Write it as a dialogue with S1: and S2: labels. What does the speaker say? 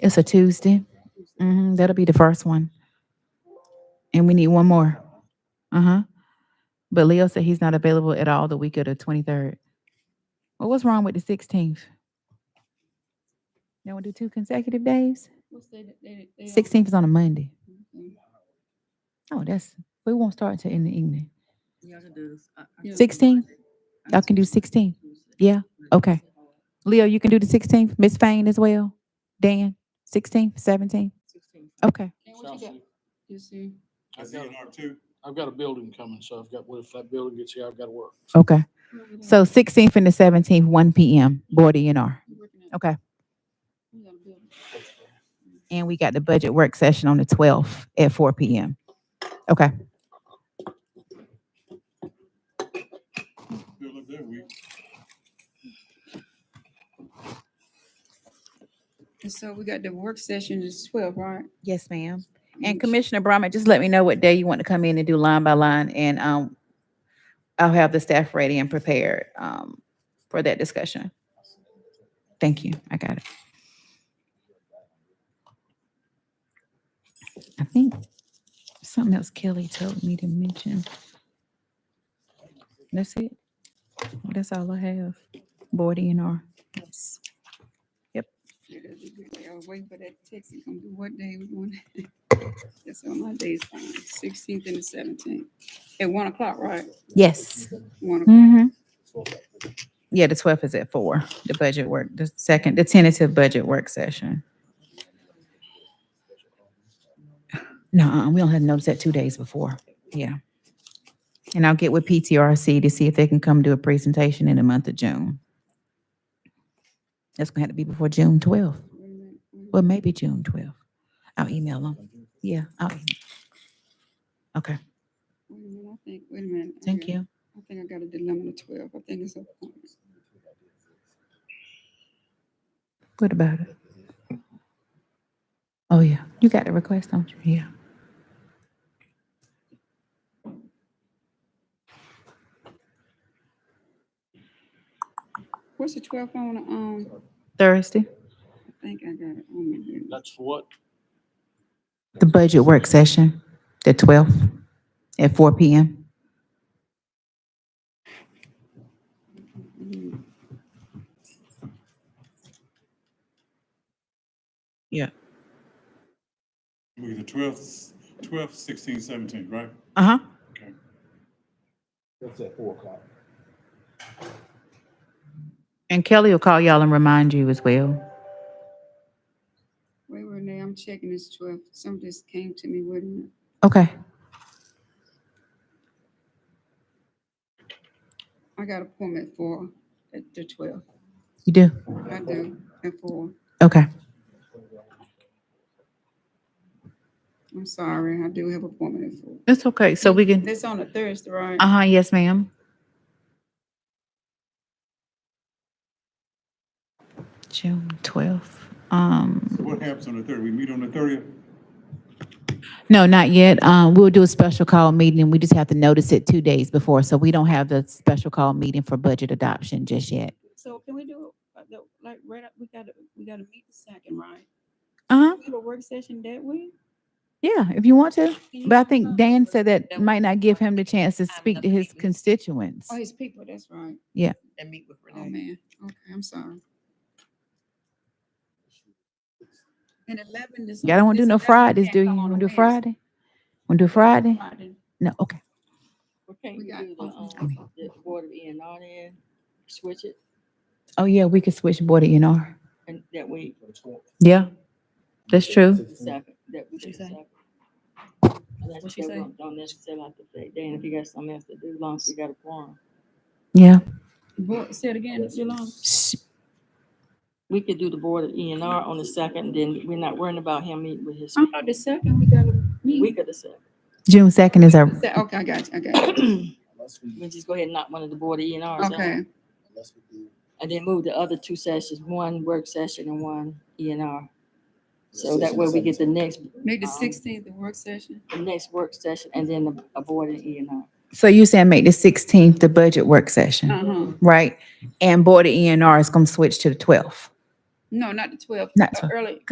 S1: It's a Tuesday. hmm That'll be the first one. And we need one more. Uh huh. But Leo said he's not available at all the week of the 23rd. Well, what's wrong with the 16th? They want to do two consecutive days? 16th is on a Monday. Oh, that's, we won't start till in the evening. 16? Y'all can do 16? Yeah? Okay. Leo, you can do the 16th? Miss Fain as well? Dan? 16th, 17th? Okay.
S2: I've got a building coming, so I've got, well, if that building gets here, I've got to work.
S1: Okay. So 16th and the 17th, 1 p.m., Board E of DNR. Okay. And we got the budget work session on the 12th at 4 p.m. Okay.
S3: And so we got the work session is twelve, right?
S1: Yes, ma'am. And Commissioner Brahma, just let me know what day you want to come in and do line by line, and um, I'll have the staff ready and prepared um, for that discussion. Thank you. I got it. I think something else Kelly told me to mention. That's it. Well, That's all I have. Board E and R.
S3: Yes.
S1: Yep.
S3: Yeah, that'd be good. I was waiting for that text to come through. What day we want? That's on my days, sixteenth and the seventeenth. At one o'clock, right?
S1: Yes.
S3: One, o'clock.
S1: Mm-hmm. Yeah, the twelfth is at four, the budget work, the second, the tentative budget work session. No, we don't have notice that two days before, yeah. And I'll get with PTRC to see if they can come do a presentation in the month of June. That's gonna have to be before June twelfth,
S3: Wait a minute, wait a
S1: well, maybe June twelfth. I'll email them, yeah, I'll, em- okay,
S3: wait a minute, I think, wait a minute. I
S1: thank
S3: got-
S1: you.
S3: I think I got a dilemma to twelve. I think it's a point.
S1: What about it? Oh, yeah, you got the request, don't you? Yeah.
S3: What's the twelve on, um,
S1: Thursday?
S3: I think I got it on my here.
S2: That's for what?
S1: The budget work session, the twelfth, at four P M.
S3: Mm,
S1: Yeah.
S4: We the twelfth, twelfth, sixteen, seventeen, right?
S1: Uh-huh.
S4: Okay.
S2: That's at four o'clock.
S1: And Kelly will call y'all and remind you as well.
S3: Wait, wait, now, I'm checking this twelve. Some just came to me, wait a minute.
S1: Okay.
S3: I got appointment for at the twelve.
S1: You do?
S3: I do, at four.
S1: Okay.
S3: I'm sorry, I do have appointment at four.
S1: That's okay. So we can,
S3: It's on a Thursday, right?
S1: uh-huh, yes, ma'am. June twelfth. Um,
S4: So what happens on the third? We meet on the thirtieth?
S1: no, not yet. Uh, we'll do a special call meeting. We just have to notice it two days before, so we don't have the special call meeting for budget adoption just yet.
S3: So can we do, uh, the- like, right up, we gotta, we gotta meet the second, right?
S1: Uh-huh.
S3: We have a work session that week?
S1: Yeah, if you want to.
S3: Can you
S1: But I
S3: do that?
S1: think Dan said that
S5: that
S1: might not give him the chance to
S5: have
S1: speak to
S5: another
S1: his
S5: meeting.
S1: constituents.
S3: Oh, his people, that's right.
S5: and meet with
S3: Oh,
S5: Renee.
S3: man, okay, I'm sorry. And eleven is.
S1: Y'all don't want to do no Fridays, do you? Want to do Friday? Want to do Friday? No, okay.
S6: Well, can't
S3: We
S6: you
S3: got-
S6: do the,
S3: oh,
S1: okay.
S6: um, the Board of E and R then, switch it,
S1: Oh, yeah, we could switch Board of R.
S6: and that way,
S1: Yeah, that's true.
S6: second, that.
S3: What'd you say?
S6: Unless
S3: What'd you
S6: they
S3: say?
S6: don't don't necessarily have to say, Dan, if you got something else to do, as long as you got a forum.
S1: Yeah.
S3: Well, say it again, Jelon.
S1: S-
S6: We could do the Board of E and R on the second, then we're not worrying about him meeting with his,
S3: I thought the second, we gotta meet.
S6: week of the second.
S1: June second is our,
S3: Se- Okay, I got you, I got you.
S6: We just go ahead and knock one of the Board of E and Rs out,
S3: Okay,
S6: and then move the other two sessions, one work session and one E and R. So that way we get the next,
S3: make the
S6: Um,
S3: sixteenth the work session.
S6: the next work session, and then the- a Board of E and R.
S1: so you saying make the sixteenth the budget work session,
S3: Uh-huh.
S1: E right? And Board of R is gonna switch to the twelfth.
S3: No, not the twelfth.
S1: Not 12th.
S3: Early,